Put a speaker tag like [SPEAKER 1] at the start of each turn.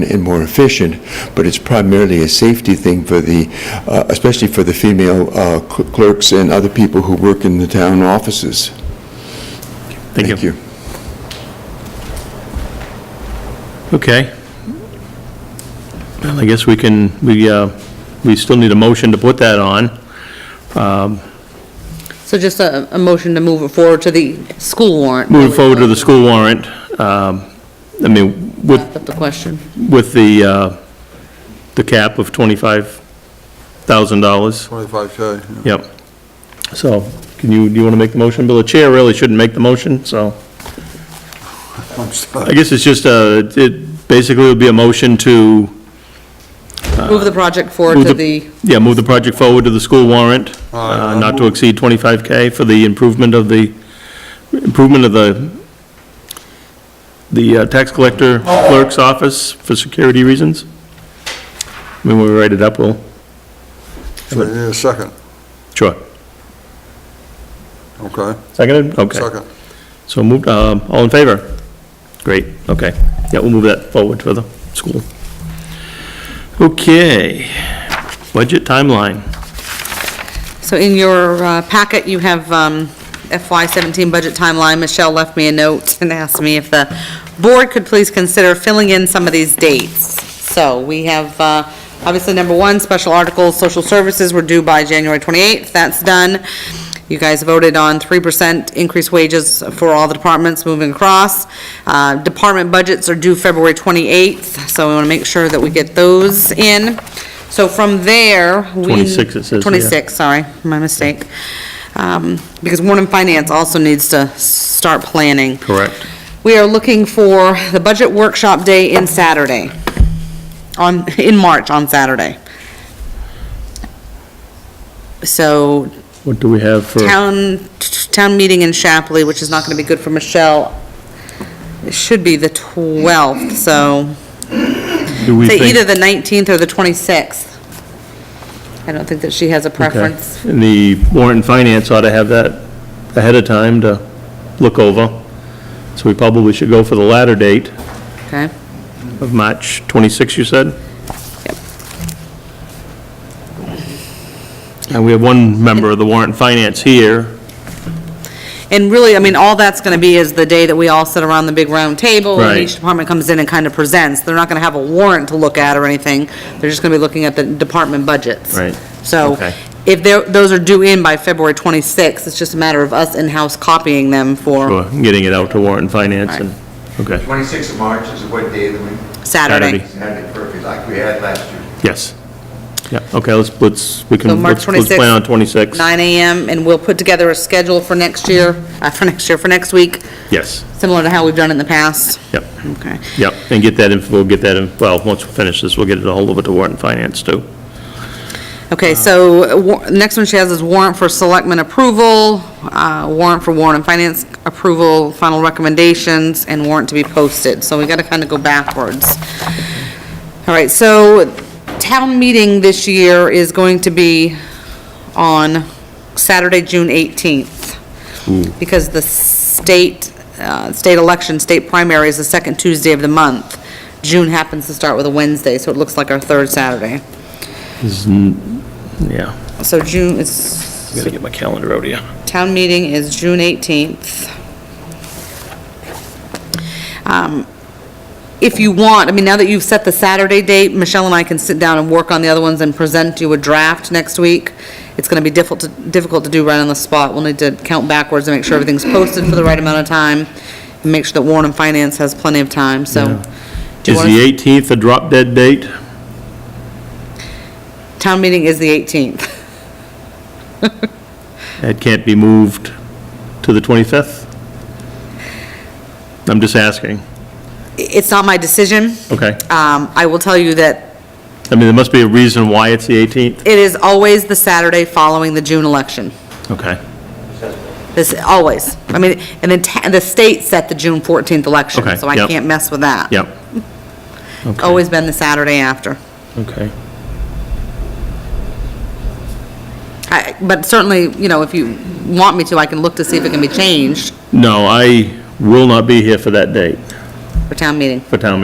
[SPEAKER 1] and more efficient, but it's primarily a safety thing for the, uh, especially for the female uh, cl- clerks and other people who work in the town offices. Thank you.
[SPEAKER 2] Okay. Well, I guess we can, we, uh, we still need a motion to put that on.
[SPEAKER 3] So just a, a motion to move it forward to the school warrant.
[SPEAKER 2] Moving forward to the school warrant, um, I mean, with,
[SPEAKER 3] That's the question.
[SPEAKER 2] with the, uh, the cap of $25,000.
[SPEAKER 4] 25K.
[SPEAKER 2] Yep. So, can you, do you want to make the motion, Bill? The chair really shouldn't make the motion, so.
[SPEAKER 4] I'm
[SPEAKER 2] I
[SPEAKER 4] sorry.
[SPEAKER 2] guess it's just, uh, it basically would be a motion to
[SPEAKER 3] Move the project forward
[SPEAKER 2] Move
[SPEAKER 3] to the,
[SPEAKER 2] Yeah, move the project forward to the school warrant,
[SPEAKER 4] Aye.
[SPEAKER 2] uh, not to exceed 25K for the improvement of the, improvement of the, the uh, tax collector clerk's office for security reasons. When we write it up, we'll,
[SPEAKER 4] So you need a second,
[SPEAKER 2] sure.
[SPEAKER 4] okay?
[SPEAKER 2] Seconded? Okay.
[SPEAKER 4] Second.
[SPEAKER 2] So moved, um, all in favor? Great, okay. Yeah, we'll move that forward for the school. Okay, budget timeline.
[SPEAKER 3] so in your uh, packet, you have um, FY seventeen budget timeline. Michelle left me a note and asked me if the board could please consider filling in some of these dates. So we have, uh, obviously, number one, special articles, social services were due by January twenty-eighth. That's done. You guys voted on 3% increased wages for all the departments moving across. Uh, Department budgets are due February 28th, so we want to make sure that we get those in. So from there, we...
[SPEAKER 2] 26 it says, yeah.
[SPEAKER 3] 26, sorry, my mistake. Um, Because Warren Finance also needs to start planning.
[SPEAKER 2] Correct.
[SPEAKER 3] We are looking for the budget workshop day in Saturday, on, in March, on Saturday. So
[SPEAKER 2] What do we have for?
[SPEAKER 3] town, town meeting in Shapley, which is not gonna be good for Michelle. It should be the 12th, so,
[SPEAKER 2] do we
[SPEAKER 3] say
[SPEAKER 2] think-
[SPEAKER 3] either the 19th or the 26th. I don't think that she has a preference.
[SPEAKER 2] Okay. And the warrant and finance ought to have that ahead of time to look over. So we probably should go for the latter date
[SPEAKER 3] Okay.
[SPEAKER 2] of March 26, you said?
[SPEAKER 3] Yep.
[SPEAKER 2] And we have one member of the warrant and finance here.
[SPEAKER 3] And really, I mean, all that's gonna be is the day that we all sit around the big round table. and
[SPEAKER 2] Right.
[SPEAKER 3] Each department comes in and kind of presents. They're not gonna have a warrant to look at or anything. They're just gonna be looking at the department budgets.
[SPEAKER 2] Right.
[SPEAKER 3] So
[SPEAKER 2] Okay.
[SPEAKER 3] if they're, those are due in by February 26th, it's just a matter of us in-house copying them for
[SPEAKER 2] Sure, Getting it out to warrant and finance and, okay.
[SPEAKER 5] 26th of March is what day of the week?
[SPEAKER 3] Saturday.
[SPEAKER 5] Saturday, perfect, like we had last year.
[SPEAKER 2] Yes. Yeah, okay, let's, let's, we
[SPEAKER 3] So
[SPEAKER 2] can, let's
[SPEAKER 3] March
[SPEAKER 2] let's
[SPEAKER 3] 26th,
[SPEAKER 2] plan on 26.
[SPEAKER 3] 9 AM, and we'll put together a schedule for next year, uh, for next year, for next week,
[SPEAKER 2] Yes,
[SPEAKER 3] similar to how we've done it in the past.
[SPEAKER 2] yep,
[SPEAKER 3] Okay.
[SPEAKER 2] yep. And get that, in- we'll get that, in well, once we finish this, we'll get it all over to warrant and finance too.
[SPEAKER 3] Okay, so wa- next one she has is warrant for selectmen approval, uh, warrant for warrant and finance approval, final recommendations, and warrant to be posted. So we got to kind of go backwards. All right, so town meeting this year is going to be on Saturday, June 18th. Because the state, uh, state election, state primary is the second Tuesday of the month. June happens to start with a Wednesday, so it looks like our third Saturday.
[SPEAKER 2] Yeah.
[SPEAKER 3] So June is,
[SPEAKER 2] Gotta get my calendar out here.
[SPEAKER 3] Town meeting is June 18th. Um, If you want, I mean, now that you've set the Saturday date, Michelle and I can sit down and work on the other ones and present you a draft next week. It's going to be difficult, to- difficult to do right on the spot. We'll need to count backwards and make sure everything's posted for the right amount of time, and make sure that Warren and Finance has plenty of time, so. do you
[SPEAKER 2] Is
[SPEAKER 3] want
[SPEAKER 2] the 18th a drop dead date?
[SPEAKER 3] Town meeting is the 18th.
[SPEAKER 2] That can't be moved to the 25th? I'm just asking.
[SPEAKER 3] It's not my decision.
[SPEAKER 2] Okay.
[SPEAKER 3] Um, I will tell you that
[SPEAKER 2] I mean, there must be a reason why it's the 18th.
[SPEAKER 3] It is always the Saturday following the June election.
[SPEAKER 2] Okay.
[SPEAKER 3] This, always. I mean, and then ta- the state set the June 14th election,
[SPEAKER 2] Okay,
[SPEAKER 3] so I
[SPEAKER 2] yep.
[SPEAKER 3] can't mess with that.
[SPEAKER 2] Yep. Okay.
[SPEAKER 3] Always been the Saturday after.
[SPEAKER 2] Okay.
[SPEAKER 3] I- But certainly, you know, if you want me to, I can look to see if it can be changed
[SPEAKER 2] No, I will not be here for that date,
[SPEAKER 3] for town meeting.
[SPEAKER 2] for town meeting.